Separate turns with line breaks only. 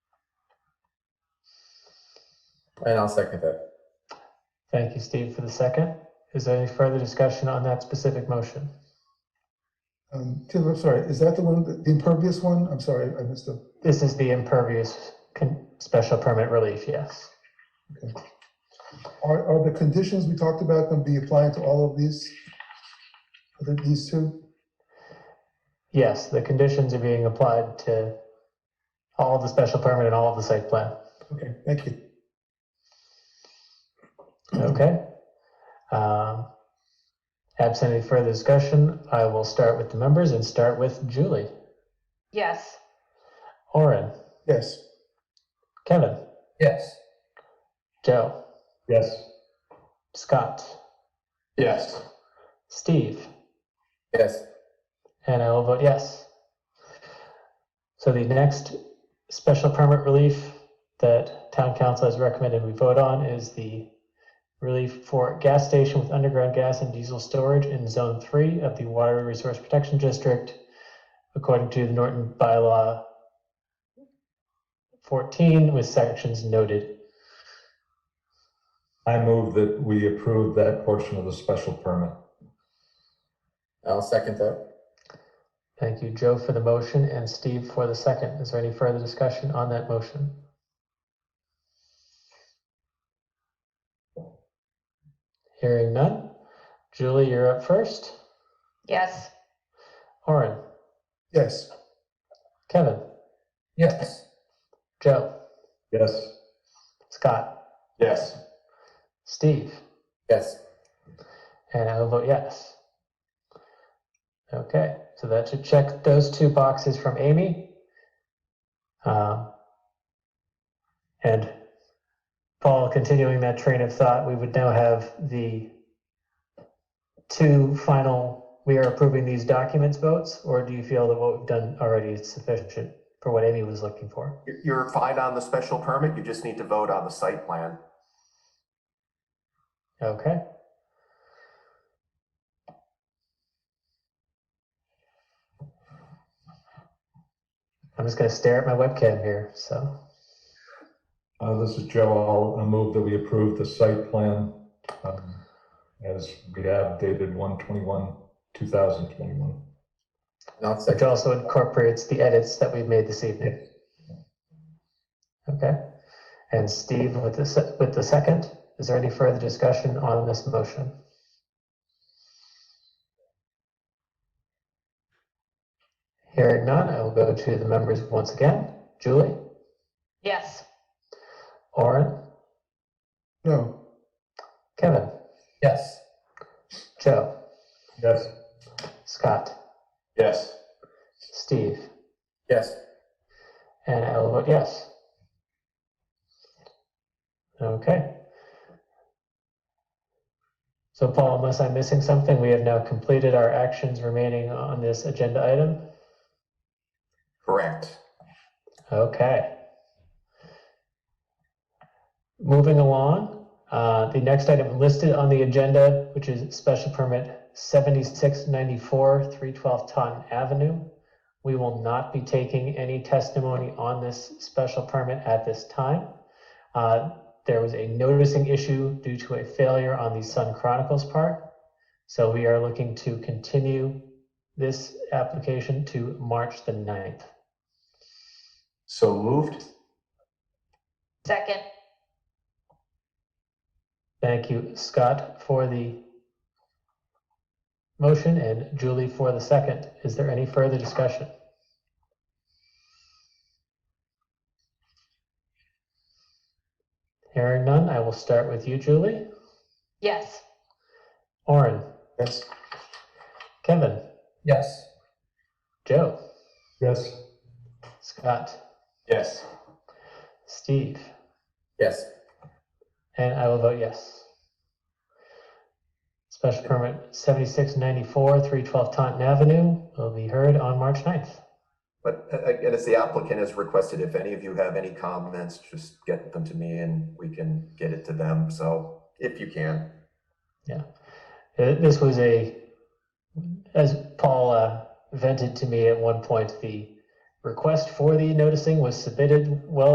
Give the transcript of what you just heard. And I'll second that.
Thank you, Steve, for the second. Is there any further discussion on that specific motion?
Um, Tim, I'm sorry, is that the one, the impervious one? I'm sorry, I missed it.
This is the impervious con- special permit relief, yes.
Are, are the conditions we talked about going to be applied to all of these? Are there These two?
Yes, the conditions are being applied to all of the special permit and all of the site plan.
Okay, thank you.
Okay. Um, Absent any further discussion, I will start with the members and start with Julie,
Yes.
Orin,
Yes,
Kevin,
Yes.
Joe,
Yes.
Scott,
Yes.
Steve,
Yes.
and I will vote yes. So the next special permit relief that town council has recommended we vote on is the relief for gas station with underground gas and diesel storage in zone three of the water resource protection district according to the Norton bylaw 14 with sections noted.
I move that we approve that portion of the special permit.
I'll second that.
Thank you, Joe, for the motion and Steve for the second. Is there any further discussion on that motion? Hearing none. Julie, you're up first.
Yes.
Orin,
yes,
Kevin,
Yes.
Joe,
Yes.
Scott,
Yes.
Steve,
Yes.
and I will vote yes. Okay, so that should check those two boxes from Amy. Um, And Paul, continuing that train of thought, we would now have the two final, we are approving these documents votes, or do you feel that what we've done already is sufficient for what Amy was looking for?
You're- You're fine on the special permit, you just need to vote on the site plan.
Okay. I'm just gonna stare at my webcam here, so,
Uh, this is Joe. I'll, I move that we approve the site plan, um, as we have dated one twenty-one, two thousand twenty-one.
And I'll
which
second.
also incorporates the edits that we've made this evening. Okay, and Steve with the, se- with the second, is there any further discussion on this motion? Hearing none, I will go to the members once again. Julie,
Yes.
Orin,
no,
Kevin,
Yes.
Joe,
Yes.
Scott,
Yes.
Steve,
Yes.
and I will vote yes. Okay. So Paul, unless I'm missing something, we have now completed our actions remaining on this agenda item.
Correct.
Okay. Moving along, uh, the next item listed on the agenda, which is special permit seventy-six ninety-four, three twelve Taunton Avenue. We will not be taking any testimony on this special permit at this time. Uh, there was a noticing issue due to a failure on the Sun Chronicles part. So we are looking to continue this application to March the 9th.
So moved?
Second.
Thank you, Scott, for the motion and Julie for the second. Is there any further discussion? Hearing none, I will start with you, Julie.
Yes.
Orin,
yes,
Kevin,
Yes.
Joe,
Yes.
Scott,
Yes.
Steve,
Yes.
and I will vote yes. Special permit 7694, 312 Taunton Avenue will be heard on March 9th.
But a- again, as the applicant has requested, if any of you have any comments, just get them to me and we can get it to them, so if you can.
Uh, This was a, as Paul uh, vented to me at one point, the request for the noticing was submitted well